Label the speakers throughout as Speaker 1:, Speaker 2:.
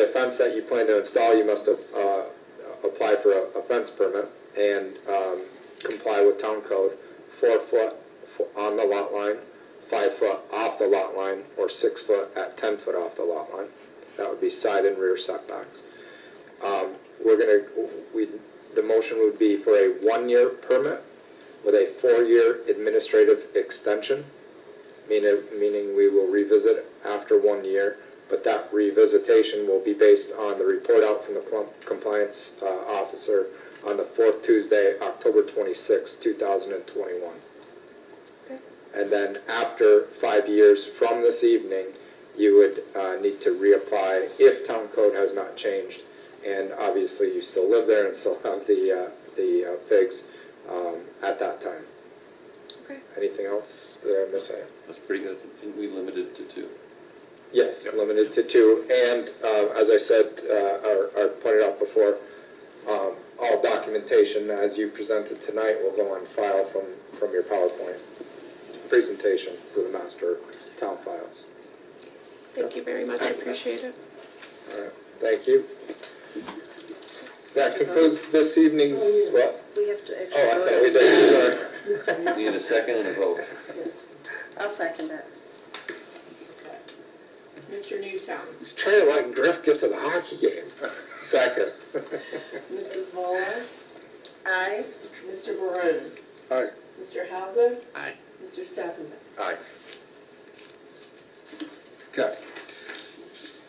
Speaker 1: fence that you plan to install, you must, uh, apply for a, a fence permit and, um, comply with town code, four foot fo- on the lot line, five foot off the lot line, or six foot at ten foot off the lot line. That would be side and rear setbacks. Um, we're gonna, we, the motion would be for a one-year permit with a four-year administrative extension, meaning, meaning we will revisit after one year, but that revisitation will be based on the report out from the clump- compliance uh, officer on the fourth Tuesday, October twenty-sixth, two thousand and twenty-one. And then after five years from this evening, you would uh, need to reapply if town code has not changed. And obviously, you still live there and still have the, uh, the uh, pigs um, at that time.
Speaker 2: Okay.
Speaker 1: Anything else that I'm missing?
Speaker 3: That's pretty good, and we limited to two.
Speaker 1: Yes, limited to two, and uh, as I said, uh, or or pointed out before, um, all documentation as you presented tonight will go on file from, from your PowerPoint presentation for the master town files.
Speaker 2: Thank you very much, I appreciate it.
Speaker 1: All right, Thank you. That concludes this evening's, what?
Speaker 4: We have to actually.
Speaker 1: Oh, I thought we
Speaker 4: vote.
Speaker 1: did, sorry.
Speaker 3: Need a second and a vote.
Speaker 4: I'll second that.
Speaker 5: Mr. Newtown,
Speaker 1: He's trying to let Griff get to the hockey game. Second.
Speaker 5: Mrs. Muller,
Speaker 4: Aye.
Speaker 5: Mr. Barone,
Speaker 1: All right.
Speaker 5: Mr. Hauser,
Speaker 3: Aye.
Speaker 5: Mr. Stafford.
Speaker 1: Aye. Okay.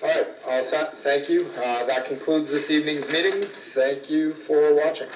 Speaker 1: All right, all set, thank you. Uh, That concludes this evening's meeting. Thank you for watching.